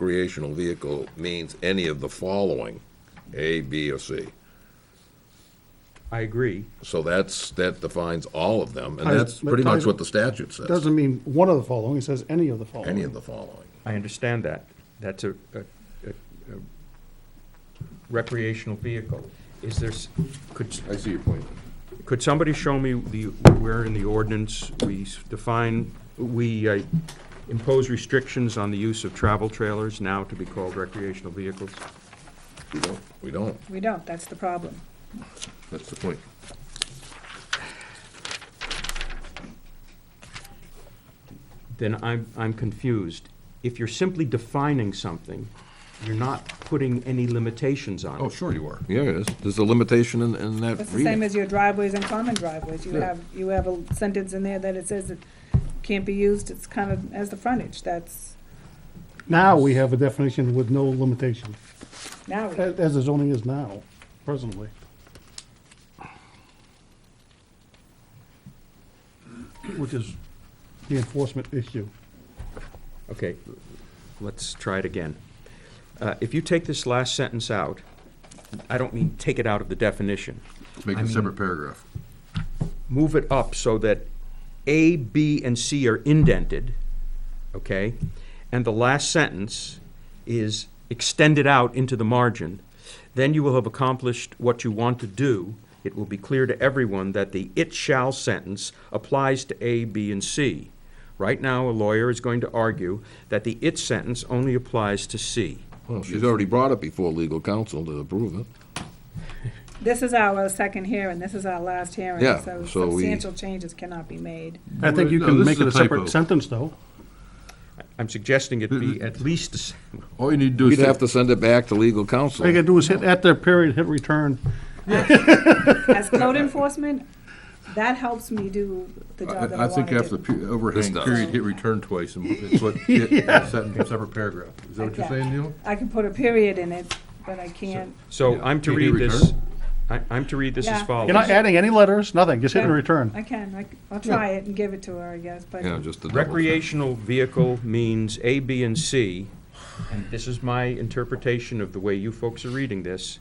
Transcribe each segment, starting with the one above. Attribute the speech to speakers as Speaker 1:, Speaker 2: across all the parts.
Speaker 1: recreational vehicle means any of the following, A, B, or C.
Speaker 2: I agree.
Speaker 1: So that's, that defines all of them, and
Speaker 3: I-
Speaker 1: that's
Speaker 3: but
Speaker 1: pretty much
Speaker 3: I-
Speaker 1: what the statute says,
Speaker 3: Doesn't mean one of the following, it says any of the following.
Speaker 1: any of the following.
Speaker 2: I understand that. That's a, a, a a recreational vehicle. Is there, s- could,
Speaker 4: I see your point.
Speaker 2: could somebody show me the, where in the ordinance we s- define, we uh, impose restrictions on the use of travel trailers now to be called recreational vehicles?
Speaker 1: We don't, we don't,
Speaker 5: We don't, that's the problem.
Speaker 1: that's the point.
Speaker 2: Then I'm, I'm confused. If you're simply defining something, you're not putting any limitations on it.
Speaker 1: Oh, sure you are, yeah, there's, there's a limitation in, in that
Speaker 5: It's the same
Speaker 1: reading.
Speaker 5: as your driveways and common driveways. You
Speaker 1: Yeah.
Speaker 5: have, you have a sentence in there that it says it can't be used, it's kind of as the frontage, that's,
Speaker 3: Now we have a definition with no limitation,
Speaker 5: now, we-
Speaker 3: a- as the zoning is now, presently. Which is the enforcement issue.
Speaker 2: Okay, let's try it again. Uh, If you take this last sentence out, I don't mean take it out of the definition.
Speaker 4: Make it a separate paragraph.
Speaker 2: Move it up so that A, B, and C are indented, okay? And the last sentence is extended out into the margin. Then you will have accomplished what you want to do. It will be clear to everyone that the "it shall" sentence applies to A, B, and C. Right now, a lawyer is going to argue that the "it" sentence only applies to C.
Speaker 1: Well, she's already brought it before legal counsel to approve it.
Speaker 5: this is our second hearing, this is our last hearing.
Speaker 1: Yeah,
Speaker 5: So
Speaker 1: so we-
Speaker 5: substantial changes cannot be made.
Speaker 3: I think you
Speaker 4: No,
Speaker 3: can
Speaker 4: this
Speaker 3: make
Speaker 4: is
Speaker 3: it
Speaker 4: a
Speaker 3: a separate
Speaker 4: typo.
Speaker 3: sentence, though.
Speaker 2: I'm suggesting it
Speaker 4: Mm-hmm.
Speaker 2: be at least, a s-
Speaker 4: All you need to do
Speaker 1: We'd have to
Speaker 4: is,
Speaker 1: send it back to legal counsel.
Speaker 3: All you gotta do is hit, at the period, hit return.
Speaker 5: As code enforcement, that helps me do the
Speaker 4: I,
Speaker 5: job that I
Speaker 4: I think
Speaker 5: want
Speaker 4: after
Speaker 5: to
Speaker 4: the
Speaker 5: do.
Speaker 4: pe- overhang
Speaker 1: does.
Speaker 4: period, hit return twice and it's what, get a sentence, separate paragraph. Is that what you're
Speaker 5: Okay.
Speaker 4: saying, Neil?
Speaker 5: I can put a period in it, but I can't,
Speaker 2: so I'm to
Speaker 4: Can you
Speaker 2: read this,
Speaker 4: return?
Speaker 2: I- I'm to read this as
Speaker 5: Yeah.
Speaker 3: You're
Speaker 2: follows.
Speaker 3: not adding any letters, nothing, just hit and
Speaker 5: Yeah.
Speaker 3: return.
Speaker 5: I can, I c- I'll try it and give it to her, I guess, but
Speaker 1: Yeah, just the double check.
Speaker 2: Recreational vehicle means A, B, and C, and this is my interpretation of the way you folks are reading this.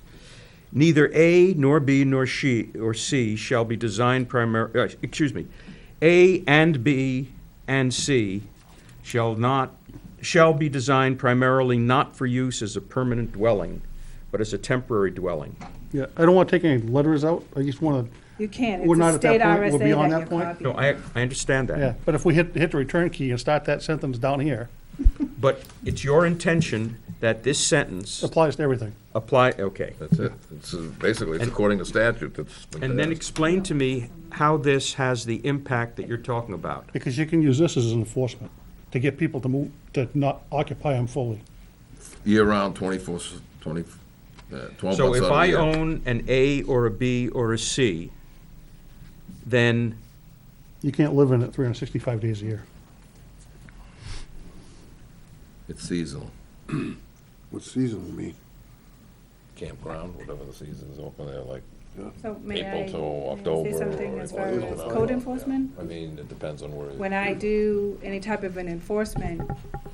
Speaker 2: Neither A nor B nor she, or C shall be designed primar, uh, excuse me, A and B and C shall not, shall be designed primarily not for use as a permanent dwelling, but as a temporary dwelling.
Speaker 3: Yeah, I don't wanna take any letters out, I just wanna,
Speaker 5: you can't.
Speaker 3: We're
Speaker 5: It's
Speaker 3: not
Speaker 5: a
Speaker 3: at
Speaker 5: state
Speaker 3: that point. We'll
Speaker 5: RSA that
Speaker 3: be on
Speaker 5: you're
Speaker 3: that point.
Speaker 5: copying.
Speaker 2: No, I, I understand that.
Speaker 3: yeah, but if we hit, hit the return key and start that sentence down here,
Speaker 2: But it's your intention that this sentence
Speaker 3: applies to everything.
Speaker 2: apply, okay.
Speaker 1: That's it, it's, uh, basically, it's according to statute that's. been
Speaker 2: And then
Speaker 1: passed.
Speaker 2: explain to me how this has the impact that you're talking about.
Speaker 3: Because you can use this as an enforcement to get people to move, to not occupy them fully.
Speaker 1: Year-round, 24, s- 20, uh, 12 months
Speaker 2: So if
Speaker 1: out of the
Speaker 2: I
Speaker 1: year.
Speaker 2: own an A or a B or a C, then,
Speaker 3: You can't live in it 365 days a year.
Speaker 1: It's seasonal,
Speaker 6: What's seasonal mean?
Speaker 1: campground, whatever the season's open there, like
Speaker 5: So may I
Speaker 1: April till
Speaker 5: say
Speaker 1: October.
Speaker 5: something
Speaker 1: or-
Speaker 5: as
Speaker 1: or
Speaker 5: far as
Speaker 1: something like
Speaker 5: code
Speaker 1: that.
Speaker 5: enforcement?
Speaker 1: I mean, it depends on where.
Speaker 5: When I do any type of an enforcement,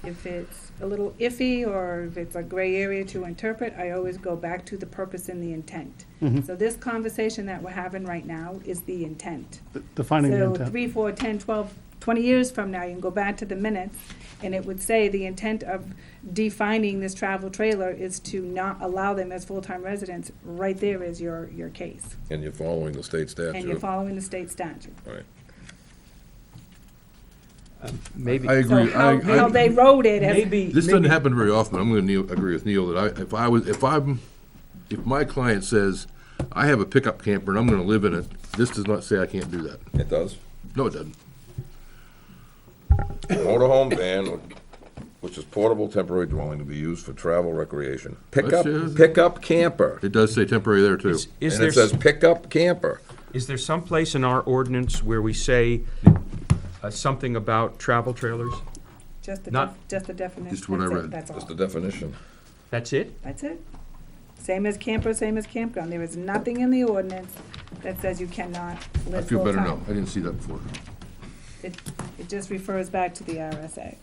Speaker 5: if it's a little iffy or if it's a gray area to interpret, I always go back to the purpose and the intent. So this conversation that we're having right now is the intent.
Speaker 3: Th- Defining the
Speaker 5: So
Speaker 3: intent.
Speaker 5: three, four, ten, twelve, twenty years from now, you can go back to the minutes, and it would say the intent of defining this travel trailer is to not allow them as full-time residents. Right there is your, your case,
Speaker 1: And you're following the state statute.
Speaker 5: and you're following the state statute.
Speaker 1: Right.
Speaker 2: maybe,
Speaker 4: I agree.
Speaker 5: So how,
Speaker 4: I-
Speaker 5: how
Speaker 4: I-
Speaker 5: they wrote it as
Speaker 2: maybe,
Speaker 4: This doesn't
Speaker 2: maybe-
Speaker 4: happen very often. I'm gonna Neil, agree with Neil that I, if I was, if I'm, if my client says, I have a pickup camper and I'm gonna live in it, this does not say I can't do that.
Speaker 1: It does.
Speaker 4: No, it doesn't.
Speaker 1: Motorhome van, which is portable temporary dwelling to be used for travel recreation. Pickup,
Speaker 4: That's it.
Speaker 1: pickup camper.
Speaker 4: It does say temporary there too.
Speaker 2: is is
Speaker 1: And
Speaker 2: there,
Speaker 1: it says
Speaker 2: s-
Speaker 1: pickup camper.
Speaker 2: is there someplace in our ordinance where we say uh, something about travel trailers?
Speaker 5: just the,
Speaker 2: Not-
Speaker 5: def- just the definition.
Speaker 4: Just what I
Speaker 5: That's it.
Speaker 4: read.
Speaker 5: That's
Speaker 1: That's the
Speaker 5: all.
Speaker 1: definition.
Speaker 2: That's it?
Speaker 5: That's it. Same as camper, same as campground. There is nothing in the ordinance that says you cannot
Speaker 4: I
Speaker 5: live
Speaker 4: feel
Speaker 5: full
Speaker 4: better now.
Speaker 5: time.
Speaker 4: I didn't see that before.
Speaker 5: It, it just refers back to the RSA.